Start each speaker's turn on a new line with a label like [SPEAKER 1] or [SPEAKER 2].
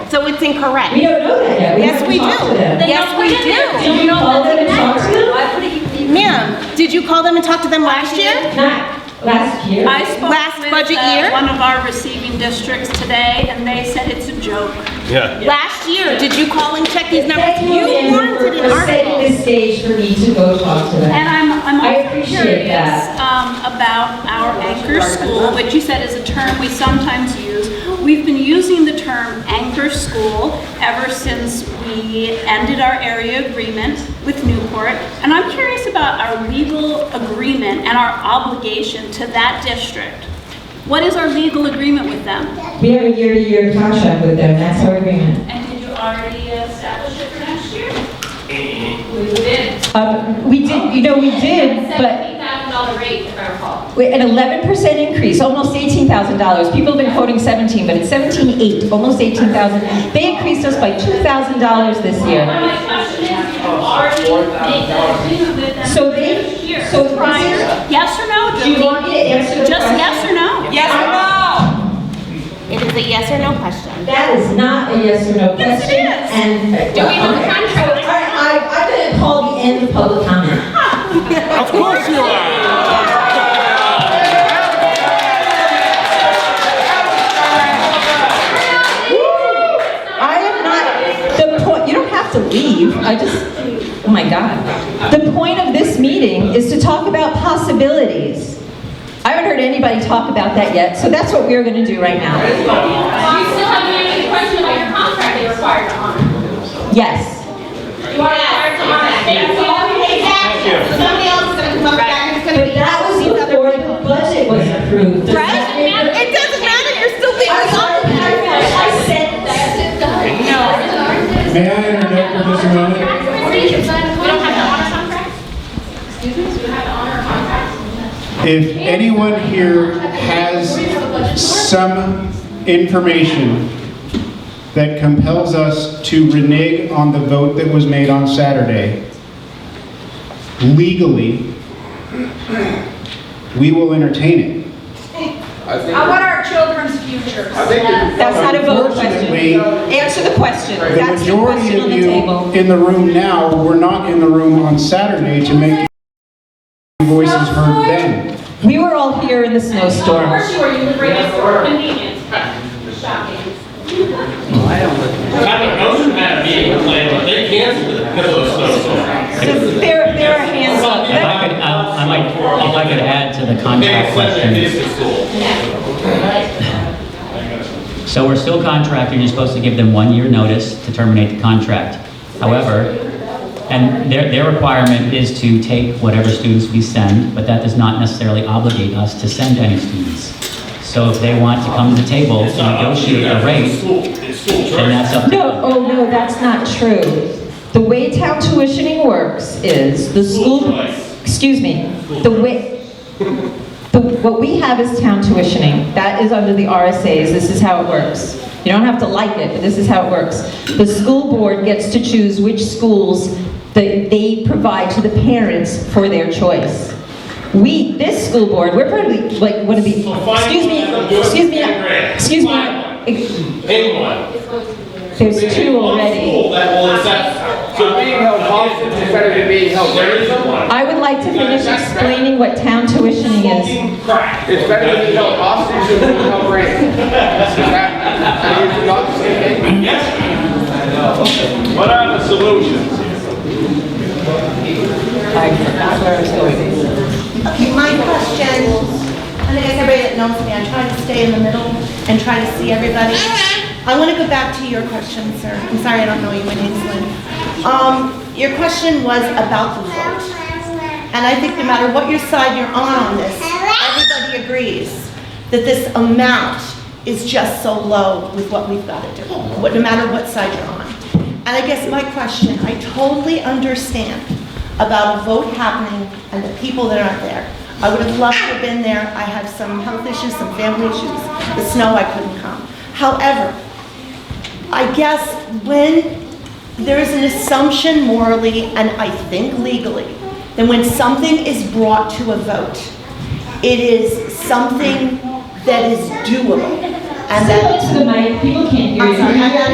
[SPEAKER 1] So it's incorrect.
[SPEAKER 2] We don't know that yet. We
[SPEAKER 1] Yes,
[SPEAKER 2] have to
[SPEAKER 1] we
[SPEAKER 2] talk
[SPEAKER 1] do.
[SPEAKER 2] to them.
[SPEAKER 1] They- Yes, we do.
[SPEAKER 2] Did you call them and talk to them?
[SPEAKER 3] I put it in.
[SPEAKER 1] Ma'am, did you call them and talk to them last year?
[SPEAKER 2] Not last year.
[SPEAKER 3] I spoke
[SPEAKER 1] Last
[SPEAKER 3] with,
[SPEAKER 1] budget
[SPEAKER 3] uh,
[SPEAKER 1] year?
[SPEAKER 3] One of our receiving districts today, and they said it's a joke.
[SPEAKER 4] Yeah.
[SPEAKER 1] Last year, did you call and check these numbers?
[SPEAKER 2] Thank
[SPEAKER 1] You
[SPEAKER 2] Andrew,
[SPEAKER 1] warranted
[SPEAKER 2] for-
[SPEAKER 1] an
[SPEAKER 2] For setting
[SPEAKER 1] article.
[SPEAKER 2] the stage for me to go talk to
[SPEAKER 3] And
[SPEAKER 2] them.
[SPEAKER 3] I'm, I'm
[SPEAKER 2] I
[SPEAKER 3] also
[SPEAKER 2] appreciate
[SPEAKER 3] curious
[SPEAKER 2] that.
[SPEAKER 3] um, about our anchor school, which you said is a term we sometimes use. We've been using the term anchor school ever since we ended our area agreement with Newport. And I'm curious about our legal agreement and our obligation to that district. What is our legal agreement with them?
[SPEAKER 2] We have a year-to-year contract with them, that's our agreement.
[SPEAKER 3] And did you already uh, establish it for next year? We did.
[SPEAKER 5] Um, We did, you know, we did, but
[SPEAKER 3] $70,000 rate, if I recall.
[SPEAKER 5] we- an 11% increase, almost $18,000. People have been quoting 17, but it's 17.8, almost 18,000. They increased us by $2,000 this year.
[SPEAKER 3] My question is, you already made that agreement with them
[SPEAKER 5] So they,
[SPEAKER 3] this year.
[SPEAKER 5] so prior,
[SPEAKER 3] Yes or no,
[SPEAKER 2] Do you
[SPEAKER 3] Jody?
[SPEAKER 2] want me to answer the question?
[SPEAKER 3] Just yes or no?
[SPEAKER 1] Yes or no? It is a yes or no question.
[SPEAKER 2] That is not a yes or no question.
[SPEAKER 3] Yes, it is.
[SPEAKER 2] And. Do we have a contract? All right, I, I'm gonna call the end of public comment.
[SPEAKER 4] Of course you are.
[SPEAKER 5] I am not, the point, you don't have to leave, I just, oh my God. The point of this meeting is to talk about possibilities. I haven't heard anybody talk about that yet, so that's what we're gonna do right now.
[SPEAKER 6] You still haven't answered the question about your contract they required to honor.
[SPEAKER 5] Yes.
[SPEAKER 6] You are required to honor. That's all we need.
[SPEAKER 1] Somebody else is gonna come up back and it's gonna
[SPEAKER 2] But that was before the budget was approved. Does
[SPEAKER 1] Right?
[SPEAKER 2] that make a-
[SPEAKER 1] It doesn't matter, you're still being
[SPEAKER 2] I'm sorry, I I said that.
[SPEAKER 6] That's it, done. No.
[SPEAKER 7] May I interject for just a moment?
[SPEAKER 6] We don't have to honor contracts? Excuse me, we have to honor contracts?
[SPEAKER 7] If anyone here has some information that compels us to renege on the vote that was made on Saturday, legally, we will entertain it.
[SPEAKER 8] I want our children's futures. Yes.
[SPEAKER 5] That's not a vote question.
[SPEAKER 7] Unfortunately,
[SPEAKER 5] Answer the question.
[SPEAKER 7] the
[SPEAKER 5] That's the
[SPEAKER 7] majority
[SPEAKER 5] question on
[SPEAKER 7] of
[SPEAKER 5] the
[SPEAKER 7] you
[SPEAKER 5] table.
[SPEAKER 7] in the room now were not in the room on Saturday to make voices heard then.
[SPEAKER 5] We were all here in the snowstorm.
[SPEAKER 6] Of course you were, you would bring us convenience. Shocking.
[SPEAKER 9] I was in that meeting complaining, but they canceled it because of the snowstorm.
[SPEAKER 5] So There, there are hands up.
[SPEAKER 10] If I could, uh, I might, if I could add to the
[SPEAKER 9] They
[SPEAKER 10] contract
[SPEAKER 9] said that
[SPEAKER 10] question.
[SPEAKER 9] this is cool.
[SPEAKER 10] So we're still contracted, you're supposed to give them one year notice to terminate the contract. However, and their, their requirement is to take whatever students we send, but that does not necessarily obligate us to send any students. So if they want to come to the table and
[SPEAKER 9] It's not up to you,
[SPEAKER 10] negotiate a
[SPEAKER 9] that's
[SPEAKER 10] rate,
[SPEAKER 9] school, it's school
[SPEAKER 10] then
[SPEAKER 9] choice.
[SPEAKER 10] that's up to
[SPEAKER 5] No, oh no, that's not true. The way town tuitioning works is the
[SPEAKER 9] School
[SPEAKER 5] school,
[SPEAKER 9] choice.
[SPEAKER 5] excuse me, the way, the, what we have is town tuitioning. That is under the RSAs, this is how it works. You don't have to like it, but this is how it works. The school board gets to choose which schools that they provide to the parents for their choice. We, this school board, we're probably like one of the,
[SPEAKER 9] So find
[SPEAKER 5] excuse me,
[SPEAKER 9] one that's
[SPEAKER 5] excuse me,
[SPEAKER 9] good for fifth
[SPEAKER 5] excuse
[SPEAKER 9] grade.
[SPEAKER 5] me.
[SPEAKER 9] Name one.
[SPEAKER 5] There's two
[SPEAKER 9] One
[SPEAKER 5] already.
[SPEAKER 9] school that will accept. So
[SPEAKER 11] Being held hostage is better than being held.
[SPEAKER 9] There is no one.
[SPEAKER 5] I would like to finish explaining what town tuitioning is.
[SPEAKER 9] Fucking crap.
[SPEAKER 11] It's better than being held hostage than being held ransom. Is that, are you not saying?
[SPEAKER 9] Yes. What are the solutions?
[SPEAKER 8] Okay, my question, and I guess everybody that knows me, I try to stay in the middle and try to see everybody. I want to go back to your question, sir. I'm sorry I don't know you, my name's Lynn. Um, your question was about the vote. And I think no matter what your side you're on on this, everybody agrees that this amount is just so low with what we've got to do, what- no matter what side you're on. And I guess my question, I totally understand about a vote happening and the people that aren't there. I would have loved to have been there. I have some health issues, some family issues. The snow, I couldn't come. However, I guess when there is an assumption morally and I think legally, then when something is brought to a vote, it is something that is doable. And that
[SPEAKER 5] Step up to the mic, people can't hear
[SPEAKER 8] I'm sorry, I
[SPEAKER 5] you.
[SPEAKER 8] got